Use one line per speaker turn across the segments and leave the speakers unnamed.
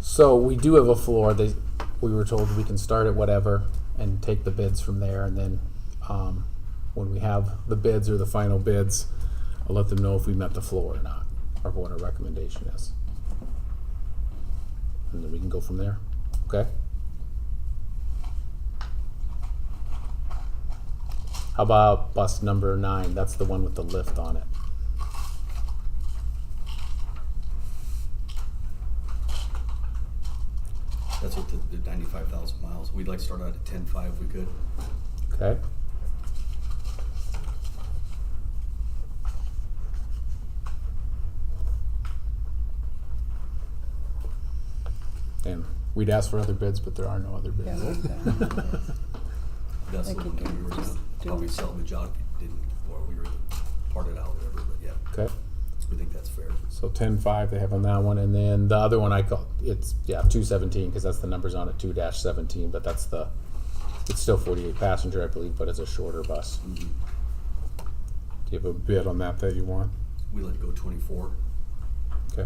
So we do have a floor. They, we were told we can start at whatever and take the bids from there. And then um, when we have the bids or the final bids, I'll let them know if we met the floor or not, or what our recommendation is. And then we can go from there. Okay? How about bus number nine? That's the one with the lift on it.
That's what the, the ninety-five thousand miles. We'd like to start out at ten-five if we could.
Okay? And we'd ask for other bids, but there are no other bids.
Yeah, there's
That's the
Like
one
you
that we
can
were gonna
just do
probably
it.
sell the job if it didn't, or we were gonna part it out, whatever, but yeah,
Okay?
we think that's fair.
So ten five they have on that one, and then the other one I call it's yeah two seventeen because that's the numbers on it two dash seventeen, but that's the it's still forty eight passenger I believe, but it's a shorter bus. Do you have a bid on that that you want?
We let it go twenty-four.
Okay.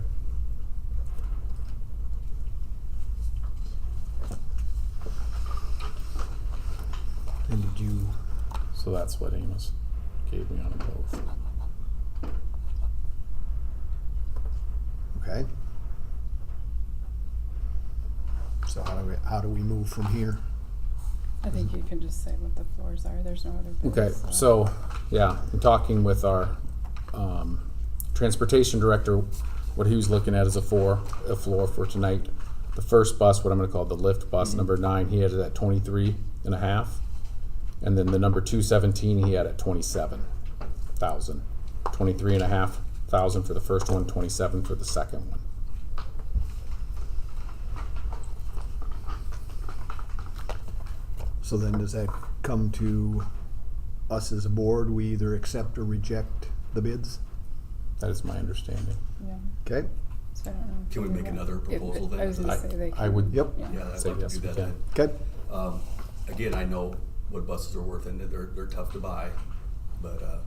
And did you,
So that's what Amos gave me on them both.
okay. So how do we, how do we move from here?
I think you can just say what the floors are, there's no other bids.
Okay, so, yeah, in talking with our um, transportation director, what he was looking at is a four, a floor for tonight. The first bus, what I'm gonna call the lift bus, number nine, he had it at 23 and a half, And then the number two seventeen, he had at twenty-seven thousand. Twenty-three and a half thousand for the first one, twenty-seven for the second one.
So then does that come to us as a board? We either accept or reject the bids?
That is my understanding.
Yeah,
Okay,
so I don't know. if
Can we
do
make
that.
another
If-
proposal then?
I was
I-
gonna say they can.
I would-
yep,
Yeah.
Yeah, I'd
Say
like to
yes,
do
we
that
can.
then.
okay,
Um, again, I know what buses are worth and that they're, they're tough to buy, but, uh,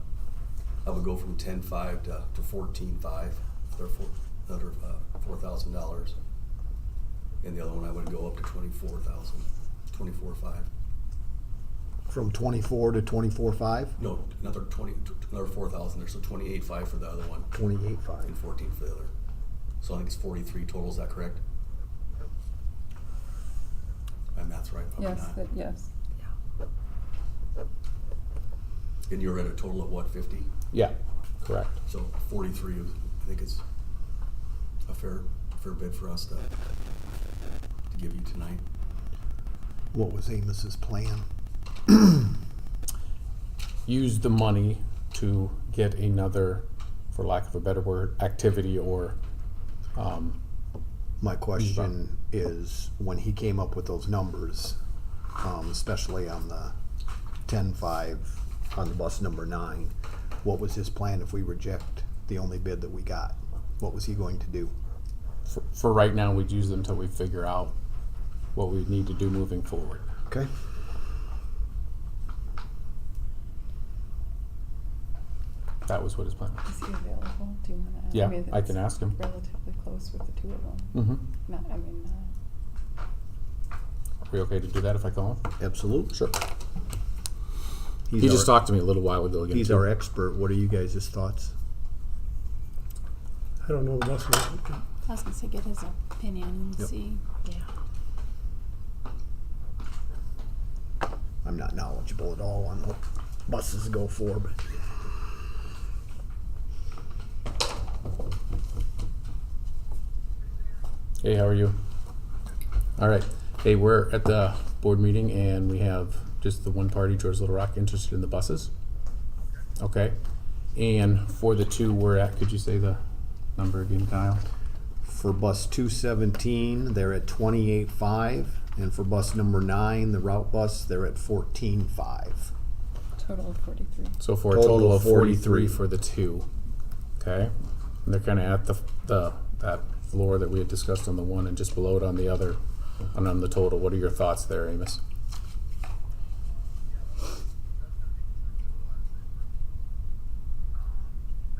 I would go from ten-five to, to fourteen-five, they're four, another, uh, four thousand dollars. And the other one, I would go up to twenty-four thousand, twenty-four-five.
from twenty-four to twenty-four five,
No, another twenty, t- another four thousand there, so twenty-eight five for the other one
twenty-eight five.
and fourteen for the other. So I think it's forty-three total, is that correct? My math's right, probably
Yes,
not.
that, yes,
And you're at a total of what, fifty?
Yeah, correct.
So forty-three, is- I think is a fair, fair bid for us to, to give you tonight.
What was Amos's plan?
use the money to get another, for lack of a better word, activity or, um,
My question is, when he came up with those numbers, um, especially on the ten-five, on the bus number nine, what was his plan if we reject the only bid that we got? What was he going to do?
for, for right now, we'd use them until we figure out what we need to do moving forward.
Okay.
That was what his plan was.
is he available, do you wanna?
Yeah,
mean,
I can
it's
ask him.
Relatively close with the two of them,
Mm-hmm.
not, I mean, uh,
Are we okay to do that if I call him?
Absolutely.
Sure.
He's
He just
our,
talked to me a little while ago again.
he's
too.
our expert. What are you guys' thoughts?
I don't know the bus route.
I was gonna say get his opinion and
Yep.
see. Yeah.
I'm not knowledgeable at all on what buses go for, but
Hey, how are you? All right. Hey, we're at the board meeting and we have just the one party, George Little Rock, interested in the buses. Okay. And for the two we're at, could you say the number again, Kyle?
for bus two seventeen, they're at twenty-eight five, and for bus number nine, the route bus, they're at fourteen five.
total of forty-three.
So for a total of forty-three for the two, okay? And they're kinda at the, the, that floor that we had discussed on the one and just below it on the other, and on the total. What are your thoughts there, Amos?